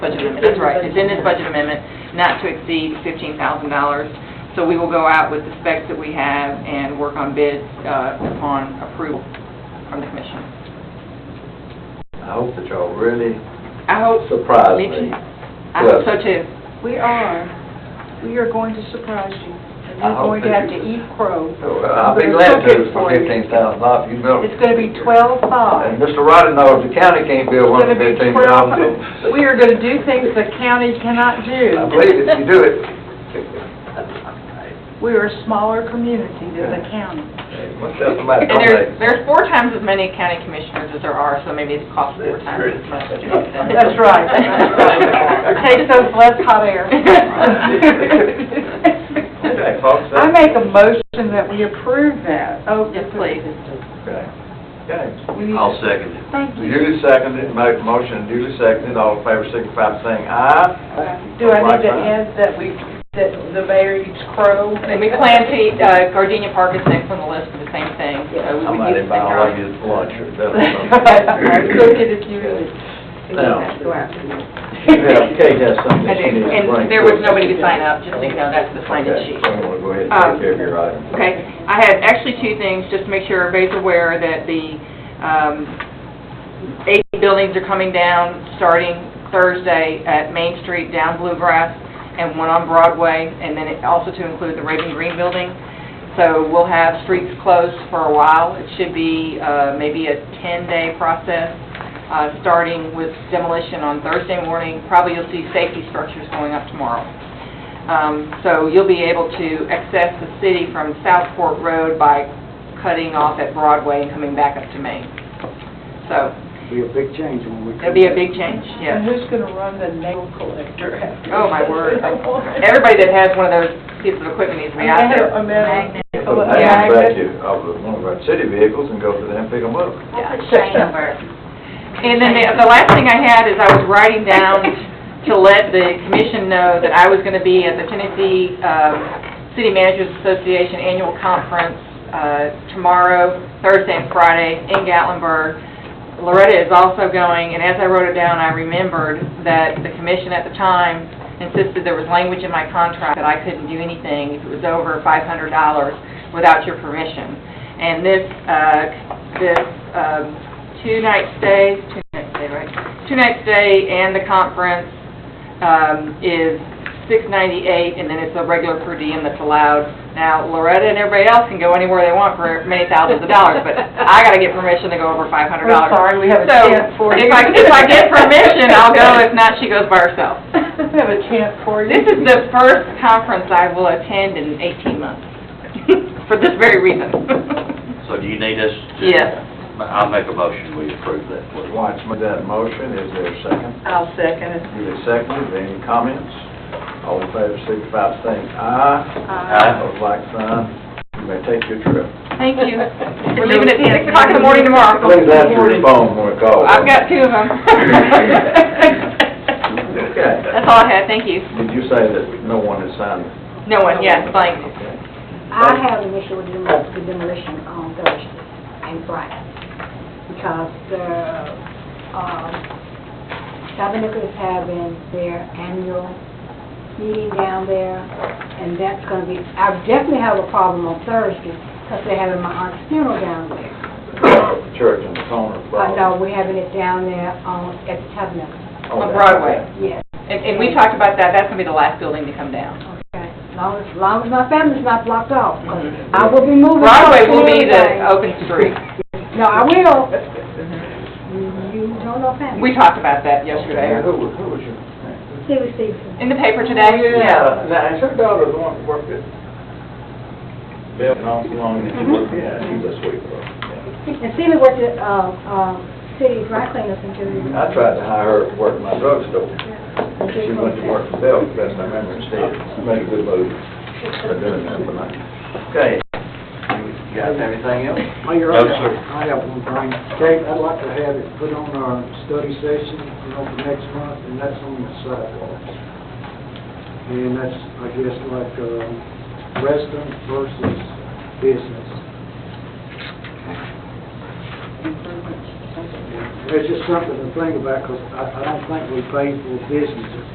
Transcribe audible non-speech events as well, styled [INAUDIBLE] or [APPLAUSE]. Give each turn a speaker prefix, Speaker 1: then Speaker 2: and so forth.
Speaker 1: Budget amendment, that's right, it's in this budget amendment, not to exceed fifteen thousand dollars. So we will go out with the specs that we have and work on bids uh, upon approval from the commission.
Speaker 2: I hope that y'all really
Speaker 1: I hope,
Speaker 2: surprise
Speaker 1: Mitch,
Speaker 2: me.
Speaker 1: I hope so too.
Speaker 3: We are, we are going to surprise you, and
Speaker 2: I
Speaker 3: you're
Speaker 2: hope
Speaker 3: going to have
Speaker 2: that
Speaker 3: to
Speaker 2: you-
Speaker 3: eat crow.
Speaker 2: So, uh, I'll be glad to for fifteen thousand off, you built.
Speaker 3: It's gonna be twelve-five.
Speaker 2: And Mr. Roddy knows the county can't build
Speaker 3: It's
Speaker 2: one
Speaker 3: gonna
Speaker 2: for
Speaker 3: be
Speaker 2: fifteen
Speaker 3: twelve,
Speaker 2: thousand.
Speaker 3: we are gonna do things the county cannot
Speaker 2: I
Speaker 3: do.
Speaker 2: believe if you do it.
Speaker 3: We are a smaller community than the county.
Speaker 2: Hey, What's that somebody
Speaker 1: And
Speaker 2: told
Speaker 1: there's,
Speaker 2: me?
Speaker 1: there's four times as many county commissioners as there are, so maybe it's cost four
Speaker 2: That's
Speaker 1: times
Speaker 2: true.
Speaker 1: as much.
Speaker 3: That's
Speaker 1: [LAUGHS]
Speaker 3: right.
Speaker 2: [LAUGHS]
Speaker 3: Take those less hot air.
Speaker 2: Okay, folks,
Speaker 3: I
Speaker 2: that-
Speaker 3: make a motion that we approve that. Oh,
Speaker 1: Yes, please.
Speaker 2: Okay. Okay.
Speaker 3: we need-
Speaker 4: I'll second it.
Speaker 3: Thank you.
Speaker 2: Duly seconded, mo- motion duly seconded, all in favor signify by saying aye.
Speaker 3: Do I need to add that we, that the mayor eats crow?
Speaker 1: And we plan [LAUGHS] to, eat, uh, Gardenia Park is next on the list for the same thing, so we
Speaker 2: I
Speaker 1: would
Speaker 2: might
Speaker 1: use the
Speaker 2: invite
Speaker 1: same
Speaker 2: all
Speaker 1: garlic.
Speaker 2: of you to lunch [LAUGHS] or
Speaker 3: [LAUGHS] Go
Speaker 2: dinner. or something.
Speaker 3: get it, you.
Speaker 2: Now.
Speaker 3: Go after me. [LAUGHS]
Speaker 2: Yeah,
Speaker 1: [LAUGHS]
Speaker 2: Kate has something
Speaker 1: I
Speaker 2: that
Speaker 1: do,
Speaker 2: she needs to
Speaker 1: and
Speaker 2: bring.
Speaker 1: there was nobody to sign up, just so you know, that's the sign-in
Speaker 2: Okay,
Speaker 1: sheet.
Speaker 2: so I'm gonna go ahead and
Speaker 1: Um,
Speaker 2: take care of your item.
Speaker 1: Okay, I had actually two things, just to make sure everybody's aware that the um, eight buildings are coming down, starting Thursday at Main Street, down Bluegrass, and one on Broadway, and then it also to include the Raven Green Building. So we'll have streets closed for a while. It should be uh, maybe a 10-day process, uh, starting with demolition on Thursday morning. Probably you'll see safety structures going up tomorrow. Um, So you'll be able to access the city from Southport Road by cutting off at Broadway and coming back up to Main. So
Speaker 5: Be a big change when we.
Speaker 1: it'll be a big change,
Speaker 3: And
Speaker 1: yes.
Speaker 3: who's gonna run the nail collector after?
Speaker 1: Oh,
Speaker 3: [LAUGHS]
Speaker 1: my word. Everybody that has one of those pieces of equipment needs to be out there.
Speaker 3: A man.
Speaker 2: Put them
Speaker 1: Oh, Yeah, I
Speaker 2: back to, of the- one of our city vehicles and go to them and pick them up.
Speaker 1: And then the the last thing I had is I was writing down to let the commission know that I was going to be at the Tennessee um, City Managers Association Annual Conference uh, tomorrow, Thursday and Friday in Gatlinburg. Loretta is also going, and as I wrote it down, I remembered that the commission at the time insisted there was language in my contract that I couldn't do anything if it was over $500 without your permission. And this, uh, this um, two-night stay, two-night stay, right? Two-night stay and the conference um, is 698, and then it's a regular per diem that's allowed. Now, Loretta and everybody else can go anywhere they want for many thousands of dollars, but I gotta get permission to go over $500.
Speaker 3: We're sorry, we have a
Speaker 1: So,
Speaker 3: chant for you.
Speaker 1: if I, if I get permission, I'll go,
Speaker 3: [LAUGHS]
Speaker 1: if not, she goes by herself.
Speaker 3: We have a chant for you.
Speaker 1: This is the first conference I will attend in 18 months, [LAUGHS] for this very reason. [LAUGHS]
Speaker 4: So do you need us? to-
Speaker 1: Yes.
Speaker 4: I'll make a motion, we approve that, please.
Speaker 2: Lawrence made that motion, is there a second?
Speaker 3: I'll second it.
Speaker 2: Duly seconded, any comments? All in favor, signify by saying aye.
Speaker 4: Aye.
Speaker 2: Pose like sign, you may take your trip.
Speaker 1: Thank you. [LAUGHS]
Speaker 3: [LAUGHS]
Speaker 1: We're leaving at 6 o'clock in the morning tomorrow.
Speaker 2: Please answer your phone when I call.
Speaker 1: I've got two of [LAUGHS] them.
Speaker 2: [LAUGHS] Okay.
Speaker 1: That's all I had, thank you.
Speaker 2: Did you say that no one has signed?
Speaker 1: No one, yes, blank.
Speaker 2: Okay.
Speaker 6: I have an issue with demol- with demolition on Thursday and Friday, because the, um, Tabernacle is having their annual meeting down there, and that's gonna be, I definitely have a problem on Thursday, because they're having my aunt's funeral down there.
Speaker 2: Church on the corner of Broadway.
Speaker 6: But no, we're having it down there on, at the Tabernacle,
Speaker 2: Oh,
Speaker 1: On
Speaker 2: that's
Speaker 1: Broadway.
Speaker 2: okay.
Speaker 6: yes,
Speaker 1: And, and we talked about that, that's gonna be the last building to come down.
Speaker 6: okay. As long as, as long as my family's not blocked off, 'cause I will be moving.
Speaker 1: Broadway will be
Speaker 6: Thursday.
Speaker 1: the open street.
Speaker 6: No, I will. You don't know family.
Speaker 1: We talked about that
Speaker 2: Now,
Speaker 1: yesterday.
Speaker 2: Who was, who was your?
Speaker 6: See, we see. some-
Speaker 1: In the paper today?
Speaker 2: Uh, Now, is her daughter the one that worked at Bill and all along?
Speaker 6: Mm-hmm.
Speaker 2: Yeah, she's a sweet girl. yeah.
Speaker 6: And see, we went to, uh, uh, city dry cleaners until. we-
Speaker 2: I tried to hire her to work at my drugstore. She went to work for Bill, best I remember, instead. She made a good move for doing that for me. Okay. You guys have anything else?
Speaker 5: Mayor,
Speaker 4: No, sir.
Speaker 5: I have one thing. Kate, I'd like to have it put on our study session, you know, for next month, and that's on the sidewalks. And that's, I guess, like, um, resident versus business.
Speaker 6: Thank you.
Speaker 5: It's just something to think about, because I I don't think we pay for businesses.